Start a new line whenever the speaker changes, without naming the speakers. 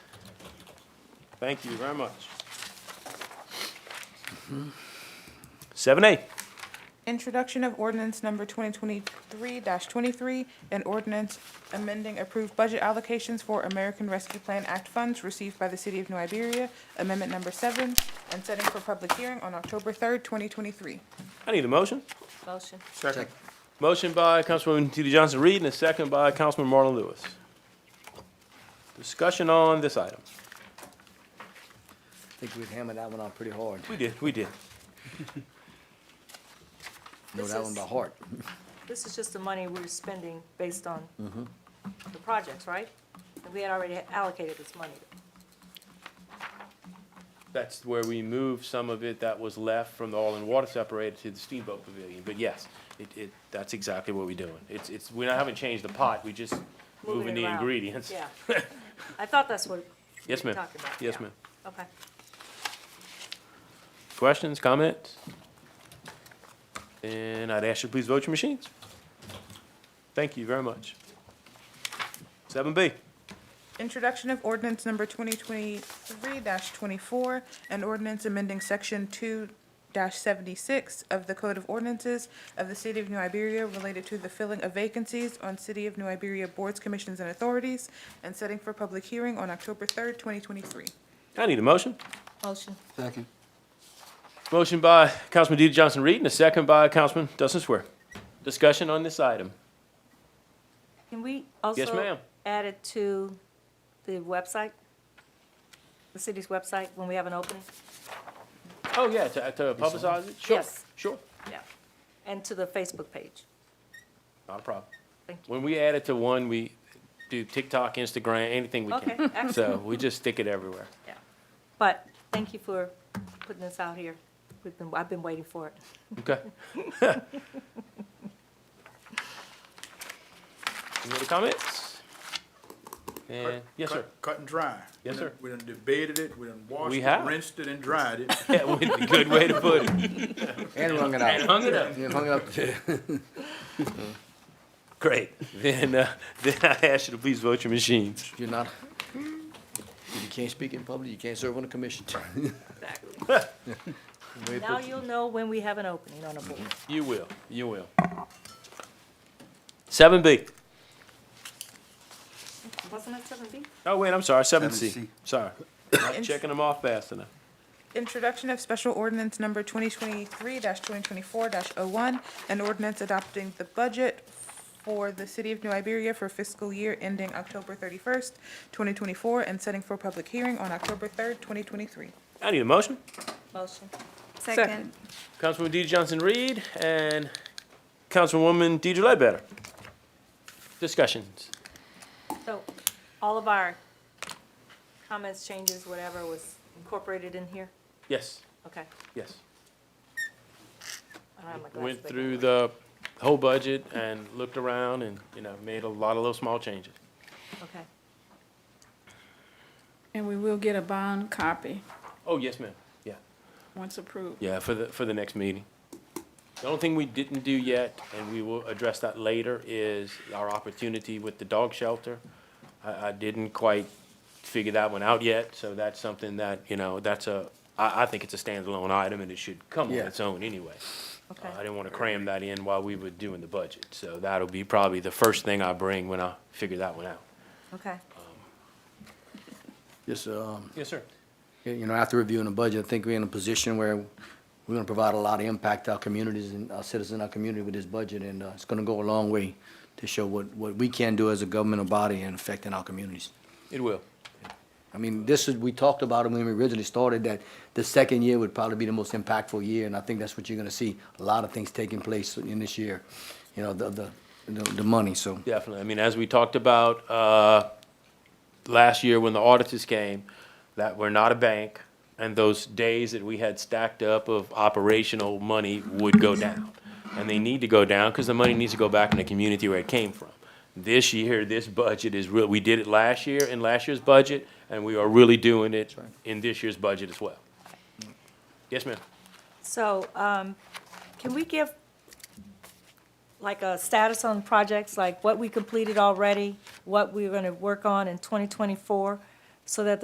Thank you very much. Seven A,
Introduction of ordinance number 2023-23, an ordinance amending approved budget allocations for American Rescue Plan Act funds received by the City of New Iberia, Amendment Number 7, and setting for public hearing on October 3rd, 2023.
I need a motion.
Motion.
Second.
Motion by Councilwoman T.D. Johnson-Reed and a second by Councilman Marlon Lewis. Discussion on this item.
I think we'd hammer that one out pretty hard.
We did, we did.
Know
This
that one
is-
by heart.
This is just the money we're spending based on the projects, right? And we had already allocated this money.
That's where we moved some of it that was left from the oil and water separated to the steamboat pavilion. But yes, it, it, that's exactly what we're doing. It's, it's, we haven't changed the pot, we just
Moving
moving
it
the
around.
ingredients.
Yeah. I thought that's what we
Yes,
were
ma'am.
talking about.
Yes,
yeah.
ma'am.
Okay.
Questions, comments? And I'd ask you to please vote your machines. Thank you very much. Seven B,
Introduction of ordinance number 2023-24, an ordinance amending Section 2-76 of the Code of Ordinances of the City of New Iberia related to the filling of vacancies on City of New Iberia boards, commissions, and authorities, and setting for public hearing on October 3rd, 2023.
I need a motion.
Motion.
Second.
Motion by Councilman D. Johnson Reed and a second by Councilman Dustin Swear. Discussion on this item.
Can we also?
ma'am.
Add it to the website? The city's website when we have an opening?
Oh, yeah, to, to publicize it? Sure,
Yes.
Sure,
Yeah. And to the Facebook page?
not a problem.
Thank you.
When we add it to one, we do TikTok, Instagram, anything we
Okay,
can. So
excellent.
we just stick it everywhere.
Yeah. But thank you for putting this out here. We've been, I've been waiting for it.
Okay. Any other comments? And, yes, sir.
Cut- Cut and dry.
Yes, sir.
We done debated it, we done washed
We
it,
have.
rinsed it and dried it.
That would be a good way to put it.
And hung it out.
Hung it up.
And hung it up.
Great. Then, uh, then I ask you to please vote your machines.
You're not, if you can't speak in public, you can't serve on a commission.
Exactly.
Way
Now
put-
you'll know when we have an opening on a board.
You will, you will. Seven B.
Wasn't it seven B?
Oh, wait, I'm sorry, seven C.
7C.
Sorry. Not checking them off fast enough.
Introduction of special ordinance number 2023-2024-01, an ordinance adopting the budget for the City of New Iberia for fiscal year ending October 31st, 2024, and setting for public hearing on October 3rd, 2023.
I need a motion.
Motion.
Second.
Councilwoman D. Johnson Reed and Councilwoman Deidre Ledbetter. Discussions.
So all of our comments, changes, whatever was incorporated in here?
Yes,
Okay.
yes.
I don't have my glasses
Went
back
through
on.
the whole budget and looked around and, you know, made a lot of little small changes.
Okay.
And we will get a bond copy
Oh, yes, ma'am. Yeah,
once approved.
yeah, for the, for the next meeting. The only thing we didn't do yet, and we will address that later, is our opportunity with the dog shelter. I, I didn't quite figure that one out yet, so that's something that, you know, that's a, I, I think it's a standalone item and it should come on
Yeah.
its own anyway. Uh,
Okay.
I didn't want to cram that in while we were doing the budget, so that'll be probably the first thing I bring when I figure that one out.
Okay.
Just, um,
Yes, sir.
Yeah, You know, after reviewing the budget, I think we're in a position where we're gonna provide a lot of impact to our communities and our citizens, our community with this budget, and, uh, it's gonna go a long way to show what, what we can do as a governmental body and affecting our communities.
It will.
I mean, this is, we talked about it when we originally started, that the second year would probably be the most impactful year, and I think that's what you're gonna see, a lot of things taking place in this year, you know, the, the, the the money, so.
Definitely. I mean, as we talked about, uh, last year when the auditors came, that we're not a bank, and those days that we had stacked up of operational money would go down. And they need to go down, because the money needs to go back in the community where it came from. This year, this budget is real, we did it last year in last year's budget, and we are really doing it in this year's budget as well. Yes, ma'am.
So, um, can we give like a status on projects, like what we completed already, what we're gonna work on in twenty twenty-four? So that the